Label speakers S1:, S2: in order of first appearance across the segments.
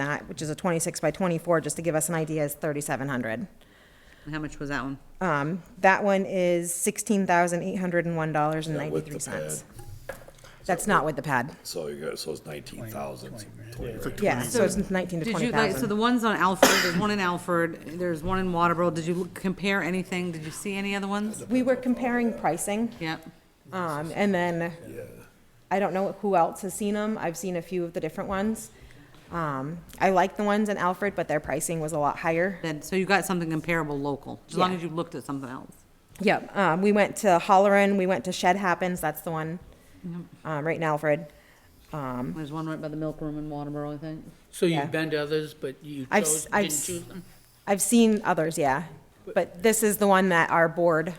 S1: that, which is a 26 by 24, just to give us an idea, is 3,700.
S2: How much was that one?
S1: Um, That one is
S3: Yeah, with the
S1: $16,801.93.
S3: pad.
S1: That's not with the pad.
S3: So you got, so it's nineteen thousand, twenty grand.
S1: Yeah, so it's 19 to
S2: Did you like, so
S1: 20,000.
S2: the ones on Alfred, there's one in Alfred, there's one in Waterboro, did you look- compare anything, did you see any other ones?
S1: We were comparing pricing,
S2: Yep,
S1: um, and then, I don't know who else has seen them. I've seen a few of the different ones. Um, I like the ones in Alfred, but their pricing was a lot higher.
S2: then, so you got something comparable local, as long
S1: Yeah.
S2: as you looked at something else.
S1: Yep, um, we went to Holleran, we went to Shed Happens, that's the one, um, right in Alfred.
S2: There's one right by the milk room in Waterboro, I think.
S4: So
S1: Yeah.
S4: you've been to others, but you
S1: I've
S4: chose,
S1: s- I've
S4: didn't
S1: s-
S4: choose them?
S1: I've seen others, yeah, but this is the one that our board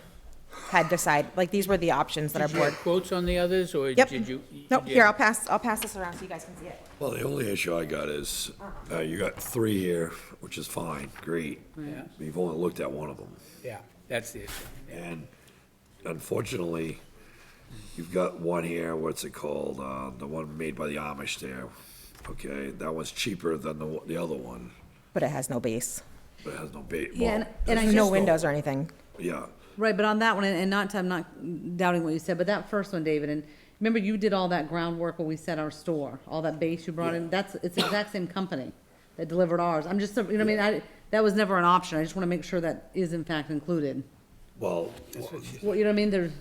S1: had decided, like, these were the options that our
S4: Did you have
S1: board.
S4: quotes on the others, or
S1: Yep.
S4: did you? you
S1: Nope,
S4: did?
S1: here, I'll pass, I'll pass this around so you guys can see it.
S3: Well, the only issue I got is, uh, you got three here, which is fine, great.
S4: Yeah.
S3: We've only looked at one of them,
S4: Yeah, that's the issue.
S1: Oh,
S3: and unfortunately, you've got one here, what's it called, uh, the one made by the Amish there. Okay, that one's cheaper than the, one- the other one,
S1: But it has no base,
S3: but it has no ba-
S2: Yeah, and-
S3: well,
S2: and I
S3: it's
S1: no
S2: just-
S1: windows or anything.
S3: Yeah,
S2: Right, but on that one, and and not, to- I'm not doubting what you said, but that first one, David, and remember you did all that groundwork when we set our store, all that base you brought in, that's, it's the exact same company that delivered ours, I'm just, you know what I mean, I, that was never an option, I just wanna make sure that is in fact included.
S3: well,
S2: Well, you know what I mean, they're,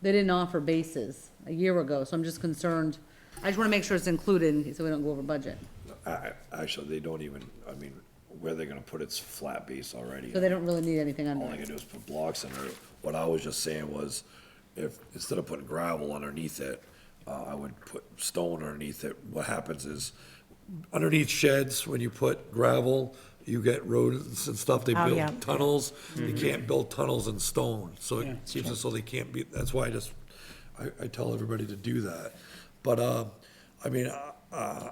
S2: they didn't offer bases a year ago, so I'm just concerned. I just wanna make sure it's included, so we don't go over budget.
S3: I, I- actually, they don't even, I mean, where they're gonna put it's flat base already.
S2: So they don't really need anything
S3: All I
S2: under
S3: can
S2: it.
S3: do is put blocks under it. What I was just saying was, if, instead of putting gravel underneath it, uh, I would put stone underneath it. What happens is, underneath sheds, when you put gravel, you get rodents and stuff, they
S1: Oh, yeah.
S3: build tunnels. They can't build tunnels in stone, so it seems as though they can't be, that's why I just, I, I tell everybody to do that. But, uh, I mean, uh, uh,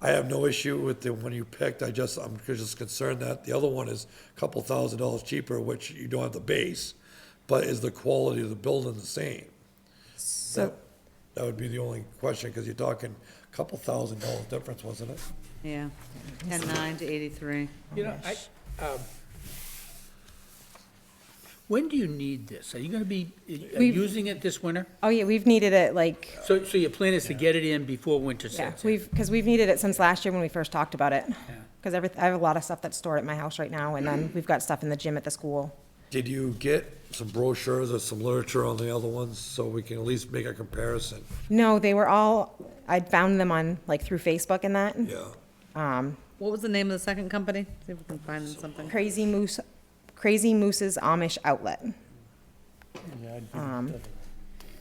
S3: I have no issue with the one you picked, I just, I'm just concerned that the other one is a couple thousand dollars cheaper, which you don't have the base, but is the quality of the building the same?
S1: So,
S3: That- That would be the only question, because you're talking a couple thousand dollar difference, wasn't it?
S2: Yeah, ten nine to eighty-three.
S4: You know, I, um, when do you need this? Are you gonna be uh, using it this winter?
S1: oh yeah, we've needed it like,
S4: So, so your plan is to get it in before winter
S1: yeah,
S4: sets in?
S1: we've, because we've needed it since last year when we first talked about it. Because every, I have a lot of stuff that's stored at my house right now, and then we've got stuff in the gym at the school.
S3: Did you get some brochures or some literature on the other ones, so we can at least make a comparison?
S1: No, they were all, I found them on, like, through Facebook and that.
S3: Yeah.
S2: What was the name of the second company? See if we can find them something.
S1: Crazy Moose, Crazy Moose's Amish Outlet.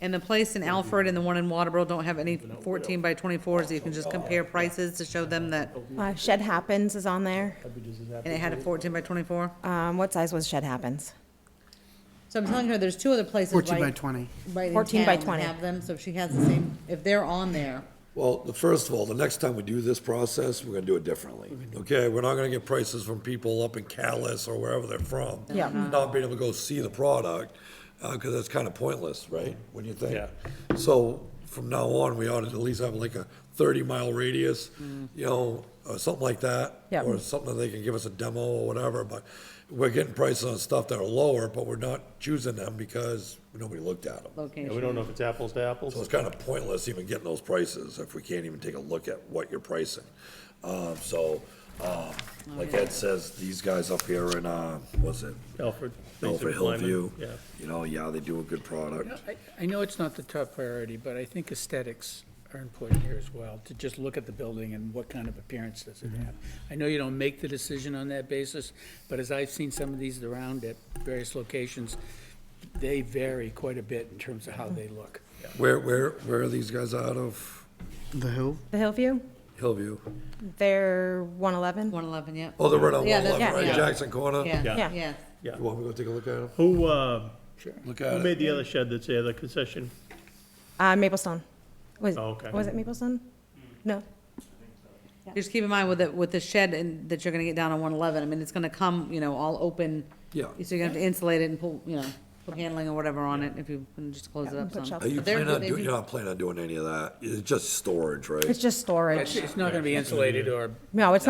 S2: And the place in Alfred and the one in Waterboro don't have any fourteen by twenty-fours, you can just compare prices to show them that,
S1: Uh, Shed Happens is on there.
S2: and it had a fourteen by twenty-four.
S1: Um, what size was Shed Happens?
S2: So I'm telling her, there's two other places right.
S5: 14 by 20.
S2: Right in
S1: 14 by
S2: town that
S1: 20.
S2: Have them, so if she has the same, if they're on there,
S3: Well, the- first of all, the next time we do this process, we're gonna do it differently,
S1: Mm-hmm.
S3: okay? We're not gonna get prices from people up in Callis or wherever they're from.
S1: Yeah.
S3: Not being able to go see the product, uh, cause that's kinda pointless, right?
S1: Mm-hmm.
S3: When you think. So from now on, we ought to at least have like a thirty mile radius, you know, or something like that.
S1: Mm. Yeah.
S3: Or something that they can give us a demo or whatever, but we're getting prices on stuff that are lower, but we're not choosing them because nobody looked at them.
S2: location.
S6: Yeah, we don't know if it's apples to
S3: So
S6: apples.
S3: it's kind of pointless even getting those prices if we can't even take a look at what you're pricing. Um, so, um, like Ed says, these guys up here in, uh, was it?
S6: Alfred.
S3: Over Hillview.
S6: Yeah.
S3: You know, yeah, they do a good product.
S4: I- I know it's not the top priority, but I think aesthetics are important here as well, to just look at the building and what kind of appearance does it have. I know you don't make the decision on that basis, but as I've seen some of these around at various locations, they vary quite a bit in terms of how they look.
S3: Where, where, where are these guys out of?
S5: The who?
S1: The Hillview?
S3: Hillview?
S1: They're 111?
S2: One eleven, yeah.
S3: Oh, they're right on
S2: Yeah,
S3: one
S2: that-
S3: eleven, right,
S2: yeah.
S3: Jackson Corner?
S2: Yeah,
S1: Yeah.
S2: yeah.
S3: You want me to go take a look at them?
S6: Who, uh,
S3: Look
S6: who
S3: at it.
S6: made the other shed that's there, the concession?
S1: Uh, Maplestone. Was,
S6: Oh, okay. Hmm.
S1: was it Maplestone? No.
S2: Just keep in mind with the, with the shed and, that you're gonna get down on one eleven, I mean, it's gonna come, you know, all open.
S3: Yeah.
S2: So you're gonna have to insulate it and pull, you know, handling or whatever on it, if you can just close it
S1: Yeah,
S2: up
S1: put
S2: some.
S1: shelves
S3: Are you
S2: But they're
S3: planning
S2: good,
S3: on
S2: they
S3: doing,
S2: do-
S3: you're not planning on doing any of that? It's just storage, right?
S1: It's just storage.
S4: It's not gonna be insulated or
S1: No, it's